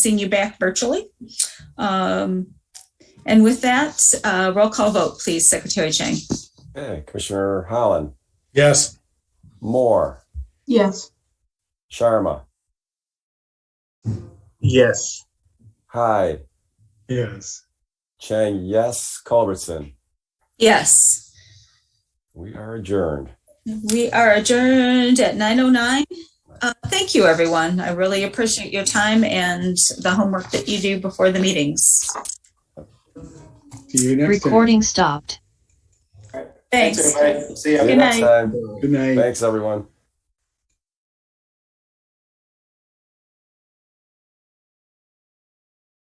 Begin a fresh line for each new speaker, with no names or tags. seeing you back virtually. Um, And with that, uh, roll call vote, please, Secretary Chang.
Okay, Commissioner Holland,
Yes.
Moore,
Yes.
Sharma,
Yes.
Hyde,
Yes.
Chang, yes, Culbertson.
Yes,
We are adjourned.
we are adjourned at 9:09. Uh, Thank you, everyone. I really appreciate your time and the homework that you do before the meetings.
See you next time.
Recording stopped.
Thanks.
everybody. See ya.
See you
Good
next
night.
time.
Good night.
Thanks, everyone.